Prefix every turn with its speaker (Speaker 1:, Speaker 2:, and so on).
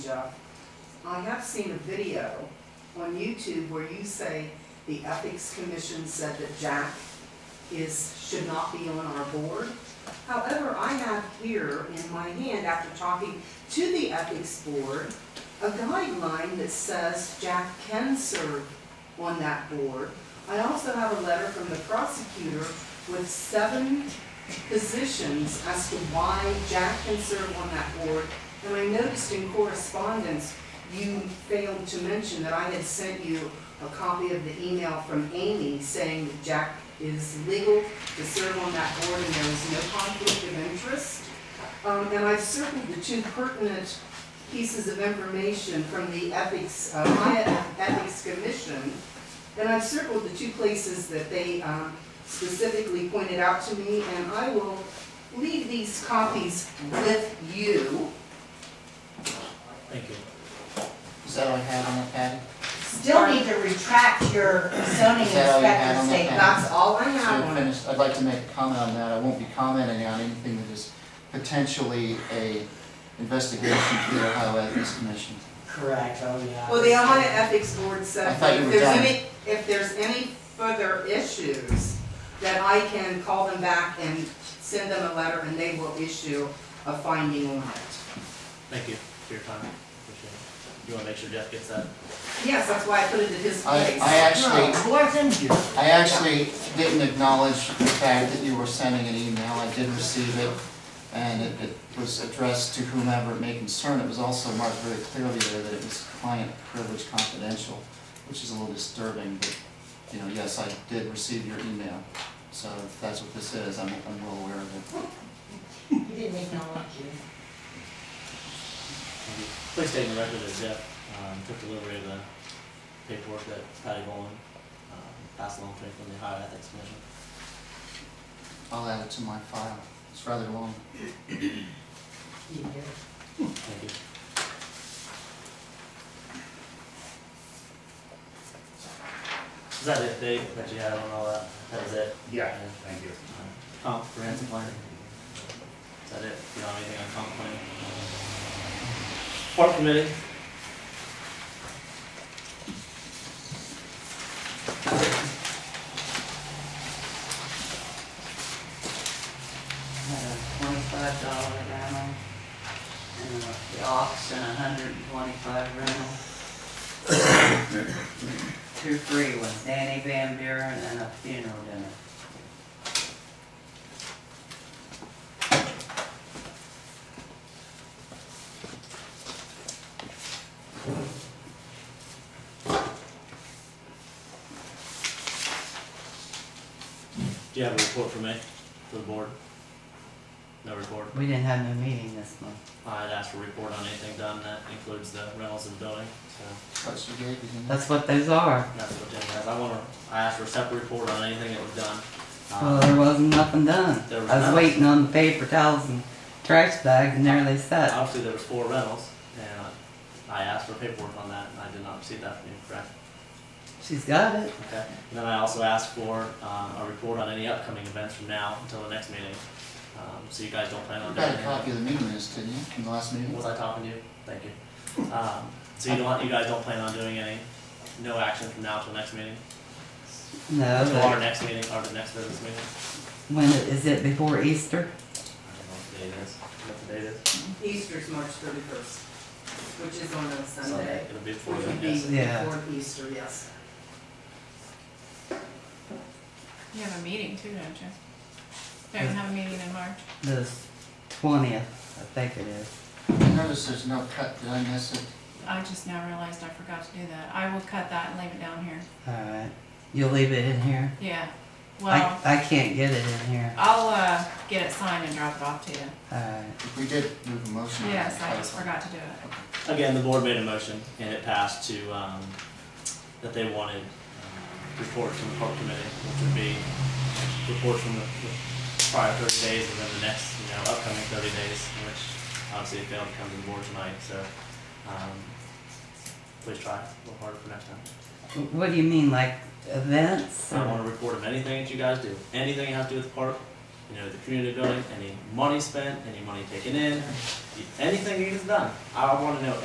Speaker 1: Jeff, I have seen a video on YouTube where you say the Ethics Commission said that Jack is, should not be on our board. However, I have here in my hand, after talking to the Ethics Board, a guideline that says Jack can serve on that board. I also have a letter from the prosecutor with seven positions as to why Jack can serve on that board. And I noticed in correspondence, you failed to mention that I had sent you a copy of the email from Amy saying that Jack is legal to serve on that board and there is no conflict of interest. Um, and I've circled the two pertinent pieces of information from the ethics, uh, Maya Ethics Commission. And I've circled the two places that they, um, specifically pointed out to me, and I will leave these copies with you.
Speaker 2: Thank you.
Speaker 3: Is that all you had on the Patty?
Speaker 4: Still need to retract your zoning
Speaker 3: Is that all you had
Speaker 4: inspector
Speaker 3: on the
Speaker 4: statement.
Speaker 3: pen?
Speaker 1: That's all I
Speaker 3: So
Speaker 1: have
Speaker 3: we're
Speaker 1: on it.
Speaker 3: finished. I'd like to make a comment on that. I won't be commenting on anything that is potentially a investigation to the Ohio Ethics Commission.
Speaker 2: Correct, oh yeah.
Speaker 1: Well, the Ohio Ethics Board
Speaker 3: I
Speaker 1: said,
Speaker 3: thought you
Speaker 1: if
Speaker 3: were
Speaker 1: there's
Speaker 3: done.
Speaker 1: any, if there's any further issues, that I can call them back and send them a letter, and they will issue a finding on it.
Speaker 2: Thank you for your time, appreciate it. You wanna make sure Jeff gets that?
Speaker 1: Yes, that's why I put it at his
Speaker 3: I,
Speaker 1: place.
Speaker 3: I
Speaker 2: No,
Speaker 3: actually,
Speaker 2: it wasn't you.
Speaker 3: I actually didn't acknowledge the fact that you were sending an email. I did receive it, and it, it was addressed to whomever it may concern. It was also marked very clearly there that it was client privilege confidential, which is a little disturbing, but, you know, yes, I did receive your email. So if that's what this is, I'm, I'm well aware of it.
Speaker 4: You didn't acknowledge you.
Speaker 2: Thank you. Please state in the record that Jeff, um, took delivery of the paperwork that Patty Bowman, um, passed along to me from the Ohio Ethics Commission.
Speaker 3: I'll add it to my file. It's rather long.
Speaker 4: You did.
Speaker 2: Thank you. Is that it, Dave, that you had on all that? uh, That was it?
Speaker 5: Yeah, thank you.
Speaker 2: Comprehensive planning. Is that it? You don't have anything on comp planning? Park committee?
Speaker 6: had a twenty-five dollar rental, and the auction, a hundred and twenty-five rental. Two free with Danny Van Buren and a funeral dinner.
Speaker 2: Do you have a report for me, for the board? No report?
Speaker 6: We didn't have no meeting this month.
Speaker 2: I had asked for a report on anything done, that includes the rentals of the building, so
Speaker 3: That's your gave, isn't it?
Speaker 6: That's what those are.
Speaker 2: that's what Jim has. I wanna, I asked for a separate report on anything that was done.
Speaker 6: Well,
Speaker 2: Uh,
Speaker 6: there wasn't nothing done.
Speaker 2: There was
Speaker 6: I
Speaker 2: none.
Speaker 6: was waiting on the paper towels and trash bags, and there they sat.
Speaker 2: Obviously, there was four rentals, and I asked for paperwork on that, and I did not receive that from you, correct?
Speaker 6: She's got it.
Speaker 2: Okay, and then I also asked for, um, a report on any upcoming events from now until the next meeting. Um, so you guys don't plan
Speaker 3: You
Speaker 2: on doing
Speaker 3: got a
Speaker 2: anything.
Speaker 3: copy of the meeting minutes, didn't you, from the last meeting?
Speaker 2: Was I talking to you? Thank you. Um, so you don't, you guys don't plan on doing any, no action from now till next meeting?
Speaker 6: No,
Speaker 2: Till our
Speaker 6: but
Speaker 2: next meeting, or the next business meeting?
Speaker 6: when it- is it before
Speaker 2: I don't
Speaker 6: Easter?
Speaker 2: know what the date is, what the date is.
Speaker 1: Easter's March thirty-first, which is on a Sunday,
Speaker 2: Sunday. It'll be before
Speaker 1: which
Speaker 2: the
Speaker 1: would be
Speaker 2: next.
Speaker 6: Yeah.
Speaker 1: before Easter, yes.
Speaker 7: You have a meeting too, don't you? Don't you have a meeting in March?
Speaker 6: The twentieth, I think it is.
Speaker 3: I noticed there's no cut, did I miss it?
Speaker 7: I just now realized I forgot to do that. I will cut that and leave it down here.
Speaker 6: All right. You'll leave it in here?
Speaker 7: Yeah.
Speaker 6: I,
Speaker 7: Well,
Speaker 6: I can't get it in here.
Speaker 7: I'll, uh, get it signed and drop it off to you.
Speaker 6: All right.
Speaker 3: If we did move a motion. on
Speaker 7: Yes,
Speaker 3: the
Speaker 7: I just
Speaker 3: title.
Speaker 7: forgot to do it.
Speaker 2: Again, the board made a motion and it passed to, um, that they wanted um, reports from the park committee, which would be reports from the the prior thirty days and then the next, you know, upcoming thirty days, which obviously it failed to come to the board tonight, so, um, please try a little harder for next time.
Speaker 6: What do you mean, like events?
Speaker 2: I want a report of anything that you guys do, anything you have to do with the park, you know, the community building, any money spent, any money taken in, anything you guys done. I wanna know